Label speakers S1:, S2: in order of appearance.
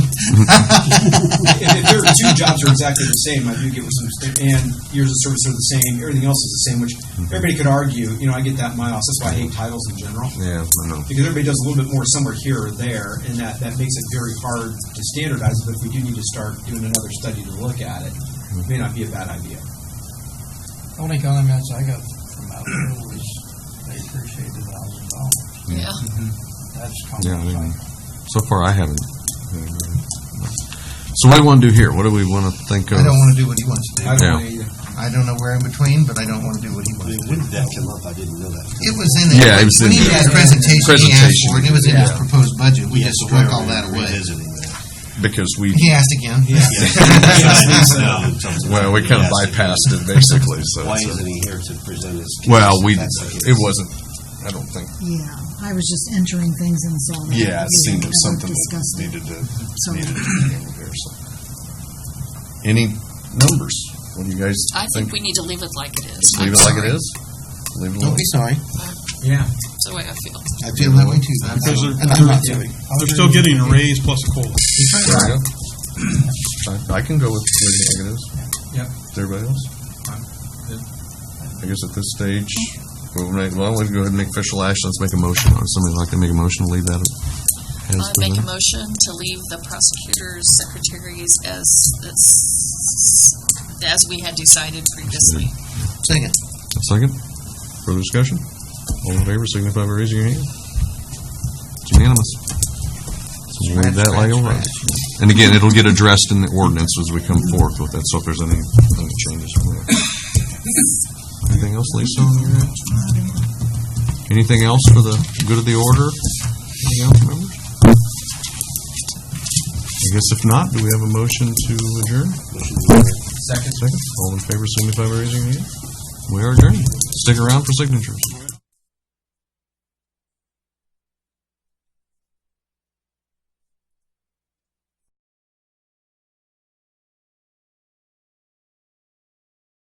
S1: if, if their two jobs are exactly the same, I do get with some, and years of service are the same, everything else is the same, which everybody could argue, you know, I get that in my office, that's why I hate titles in general.
S2: Yeah, I know.
S1: Because everybody does a little bit more somewhere here or there, and that, that makes it very hard to standardize, but if we do need to start doing another study to look at it, it may not be a bad idea.
S3: Only comments I got from out there was they appreciate the thousand dollars.
S4: Yeah.
S5: Mm-hmm.
S3: That's
S2: Yeah, I
S3: comments I
S2: mean, so far I haven't. So what do we want to do here? What do we want to think of?
S6: I don't want to do what he wants to do.
S1: I don't
S2: Yeah.
S1: know either.
S6: I don't know where in between, but I don't want to do what he wants to do.
S7: When did that come up? I didn't know that.
S6: It was in it.
S2: Yeah, it was
S6: When
S2: in
S6: he
S2: the-
S6: had a presentation, he asked
S2: Presentation.
S6: for it, and it was in his
S2: Yeah.
S6: proposed budget. We
S7: Yeah,
S6: just
S7: so
S6: struck
S7: we're
S6: all that away.
S7: Revisiting that.
S2: Because we,
S6: He asked again.
S2: well, we kind of bypassed it basically, so.
S7: Why isn't he here to present his? case
S2: Well,
S7: if
S2: we,
S7: that's the case?
S2: it wasn't, I don't think,
S4: Yeah, I was just entering things and saw that.
S2: yeah, it
S4: we
S2: seemed it
S4: had
S2: was something that
S4: discussed it,
S2: needed to,
S4: so-
S2: needed to be handled here, so. Any numbers? What do you guys
S8: I think
S2: think?
S8: we need to leave it like it is.
S2: Just leave it like it is? Leave it
S6: Don't
S2: alone?
S6: be sorry.
S1: Yeah.
S8: That's the way I feel.
S6: I feel that way too.
S5: Because they're-
S6: And I'm not sorry.
S5: They're still getting a raise plus a COLA.
S2: There we go. I, I can go with leaving it like it is.
S1: Yep.
S2: Is everybody else?
S1: I'm good.
S2: I guess at this stage, we'll make, well, we'll go ahead and make official action. Let's make a motion. Would somebody like to make a motion to leave that as
S8: I Uh, make
S2: presented?
S8: a motion to leave the prosecutors, secretaries as, as, as we had decided previously.
S6: Second.
S2: Second? Further discussion? All in favor, signify by raising your hand. It's unanimous. So we'll Leave that like it was. And again, it'll get addressed in the ordinance as we come forth with that, so if there's any, any changes from there. Anything else, Lisa? on your end? Anything else for the good of the order? Anything else, members? I guess if not, do we have a motion to adjourn?
S1: Second.
S2: Second. All in favor, signify by raising your hand. We are adjourned. Stick around for signatures.